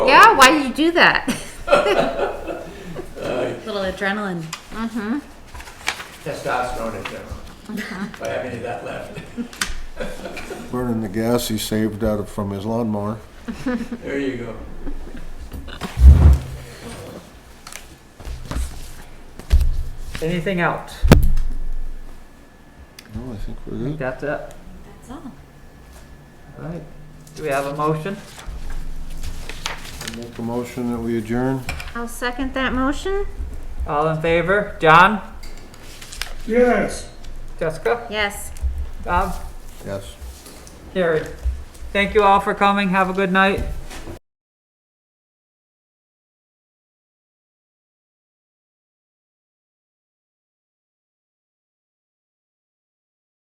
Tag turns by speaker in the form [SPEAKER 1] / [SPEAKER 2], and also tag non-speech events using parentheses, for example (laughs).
[SPEAKER 1] why do you do that?
[SPEAKER 2] (laughs)
[SPEAKER 1] (laughs)
[SPEAKER 2] Little adrenaline.
[SPEAKER 3] Testosterone in general, if I have any of that left.
[SPEAKER 4] Burning the gas he saved out of, from his lawnmower.
[SPEAKER 3] There you go.
[SPEAKER 5] Anything else?
[SPEAKER 4] No, I think we're
[SPEAKER 5] I think
[SPEAKER 4] good.
[SPEAKER 5] that's it.
[SPEAKER 2] That's all.
[SPEAKER 5] All right. Do we have a motion?
[SPEAKER 4] I Make a motion that we adjourn.
[SPEAKER 1] I'll second that motion.
[SPEAKER 5] All in favor? John?
[SPEAKER 6] Yes.
[SPEAKER 5] Jessica?
[SPEAKER 1] Yes.
[SPEAKER 5] Bob?
[SPEAKER 4] Yes.
[SPEAKER 5] Carrie? Thank you all for coming. Have a good night.